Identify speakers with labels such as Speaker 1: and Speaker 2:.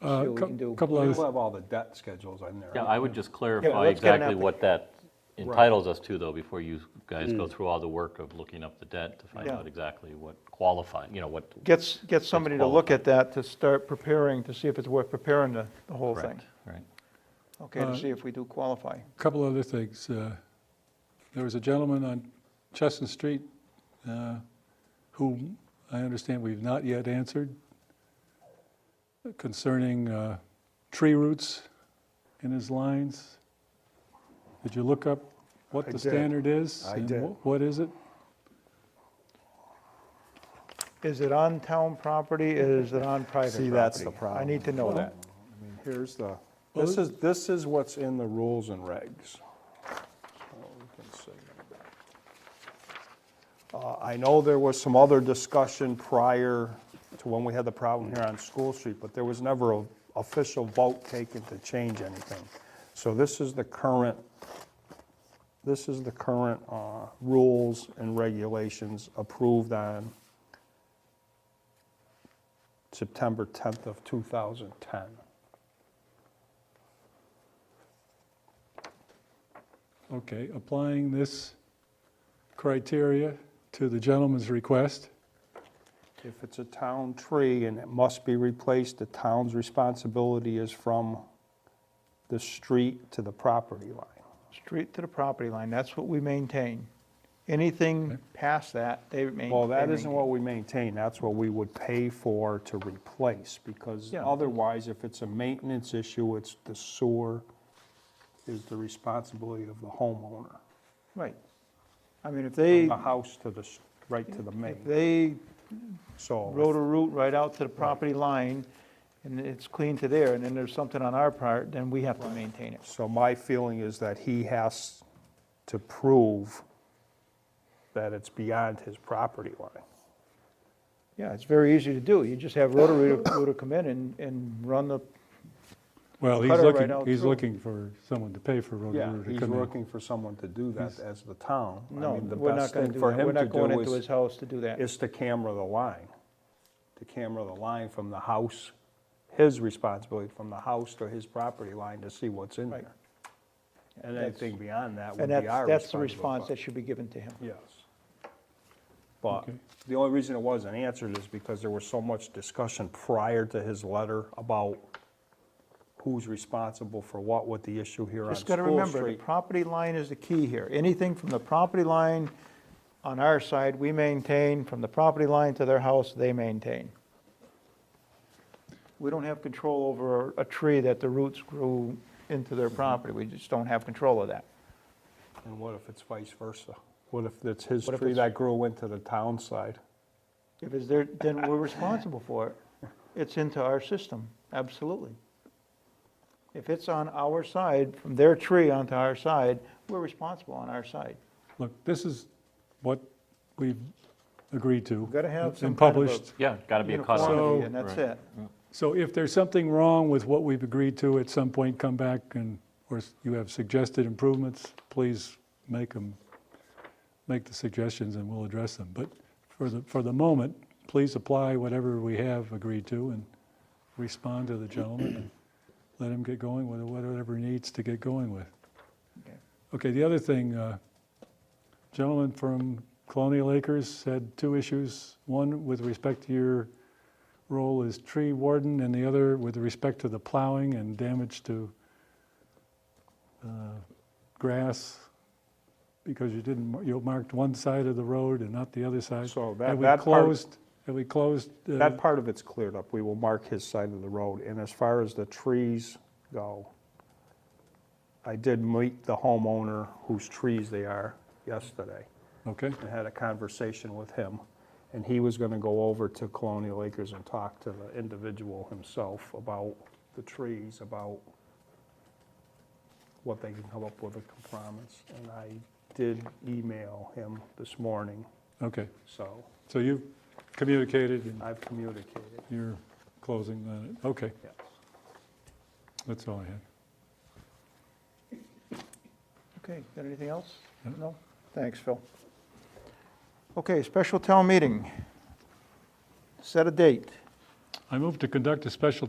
Speaker 1: Uh,
Speaker 2: See what we
Speaker 1: cou-
Speaker 2: can do.
Speaker 1: couple
Speaker 3: We'll
Speaker 1: others.
Speaker 3: have all the debt schedules in there.
Speaker 4: Yeah, I would just clarify
Speaker 2: let's get an
Speaker 4: exactly what that entitles us to, though, before you guys go through all the work of looking up the debt to find
Speaker 5: Yeah.
Speaker 4: out exactly what qualifies, you know, what,
Speaker 5: Gets, gets somebody to look at that to start preparing, to see if it's worth preparing the, the whole thing.
Speaker 4: correct, right?
Speaker 5: Okay, to
Speaker 1: Uh,
Speaker 5: see if we do qualify.
Speaker 1: Couple other things. uh, There was a gentleman on Chestnut Street uh, whom I understand we've not yet answered concerning uh, tree roots in his lines. Did you look up what
Speaker 3: I
Speaker 1: the
Speaker 3: did.
Speaker 1: standard is?
Speaker 3: I
Speaker 1: and
Speaker 3: did.
Speaker 1: wh- What is it?
Speaker 5: Is it on town property, is it on private property?
Speaker 3: See, that's the
Speaker 5: I
Speaker 3: problem.
Speaker 5: need to know that.
Speaker 3: I mean, Here's the, this is, this is what's in the rules and regs. So we can see. Uh, I know there was some other discussion prior to when we had the problem here on School Street, but there was never an official vote taken to change anything. So this is the current, this is the current uh, rules and regulations approved on September 10th of 2010.
Speaker 1: Okay, applying this criteria to the gentleman's request.
Speaker 3: If it's a town tree and it must be replaced, the town's responsibility is from the street to the property line.
Speaker 5: Street to the property line, that's what we maintain. Anything past that, they main- they maintain.
Speaker 3: Well, that isn't what we maintain, that's what we would pay for to replace, because
Speaker 5: Yeah.
Speaker 3: otherwise, if it's a maintenance issue, it's the sewer is the responsibility of the homeowner.
Speaker 5: Right. I mean, if
Speaker 3: From
Speaker 5: they,
Speaker 3: the house to the, s- right to the
Speaker 5: if
Speaker 3: main,
Speaker 5: they
Speaker 3: so. if-
Speaker 5: rode a route right out to the property line, and it's clean to there, and then there's something on our part, then we have to maintain it.
Speaker 3: So my feeling is that he has to prove that it's beyond his property line.
Speaker 5: Yeah, it's very easy to do. You just have Rotary Rooter come in and, and run the,
Speaker 1: Well, he's
Speaker 5: Cut it right
Speaker 1: looking,
Speaker 5: out
Speaker 1: he's
Speaker 5: through.
Speaker 1: looking for someone to pay for road
Speaker 3: Yeah,
Speaker 1: crew to
Speaker 3: he's
Speaker 1: come in.
Speaker 3: looking for someone to do that as the town. I
Speaker 5: no,
Speaker 3: mean, the
Speaker 5: we're not
Speaker 3: best
Speaker 5: gonna
Speaker 3: thing
Speaker 5: do that.
Speaker 3: for him
Speaker 5: We're
Speaker 3: to
Speaker 5: not going
Speaker 3: do
Speaker 5: into
Speaker 3: is-
Speaker 5: his house to do that.
Speaker 3: Is to camera the line, to camera the line from the house, his responsibility, from the house to his property line to see what's in
Speaker 5: Right.
Speaker 3: there. And
Speaker 5: That's-
Speaker 3: anything beyond that would
Speaker 5: And
Speaker 3: be
Speaker 5: that's,
Speaker 3: our responsibility.
Speaker 5: that's the response that should be given to him.
Speaker 3: Yes. But
Speaker 1: Okay.
Speaker 3: the only reason it wasn't answered is because there was so much discussion prior to his letter about who's responsible for what with the issue here on
Speaker 5: Just gotta
Speaker 3: School
Speaker 5: remember, the
Speaker 3: Street.
Speaker 5: property line is the key here. Anything from the property line on our side, we maintain, from the property line to their house, they maintain. We don't have control over a tree that the roots grew into their property. We just don't have control of that.
Speaker 3: And what if it's vice versa? What if it's his
Speaker 5: What if
Speaker 3: tree
Speaker 5: it's-
Speaker 3: that grew into the town side?
Speaker 5: If it's there, then we're responsible for it. It's into our system, absolutely. If it's on our side, from their tree onto our side, we're responsible on our side.
Speaker 1: Look, this is what we've agreed to.
Speaker 5: Gotta have
Speaker 1: and-
Speaker 5: some
Speaker 1: And
Speaker 5: kind of a-
Speaker 1: published.
Speaker 4: Yeah, got to be a cost.
Speaker 5: Uniformity, And that's
Speaker 4: Right.
Speaker 5: it.
Speaker 1: So if there's something wrong with what we've agreed to, at some point, come back and, or s- you have suggested improvements, please make them, make the suggestions and we'll address them. But for the, for the moment, please apply whatever we have agreed to and respond to the gentleman and let him get going with whatever he needs to get going with.
Speaker 5: Okay.
Speaker 1: Okay, the other thing, uh, gentleman from Colonial Acres had two issues. One with respect to your role as tree warden, and the other with respect to the plowing and damage to uh, grass, because you didn't, mar- you marked one side of the road and not the other side.
Speaker 3: So that-
Speaker 1: Have we
Speaker 3: that part-
Speaker 1: closed, have we closed? uh,
Speaker 3: That part of it's cleared up. We will mark his side of the road. And as far as the trees go, I did meet the homeowner whose trees they are yesterday.
Speaker 1: Okay,
Speaker 3: and had a conversation with him, and he was gonna go over to Colonial Acres and talk to the individual himself about the trees, about what they can come up with a compromise. And I did email him this morning,
Speaker 1: okay.
Speaker 3: so
Speaker 1: So you've communicated and
Speaker 3: I've communicated,
Speaker 1: you're closing on it. Okay,
Speaker 3: yes.
Speaker 1: that's all I had.
Speaker 5: Okay, got anything else?
Speaker 1: No.
Speaker 5: No? Thanks, Phil. Okay, special town meeting. Set a date.
Speaker 1: I move to conduct a special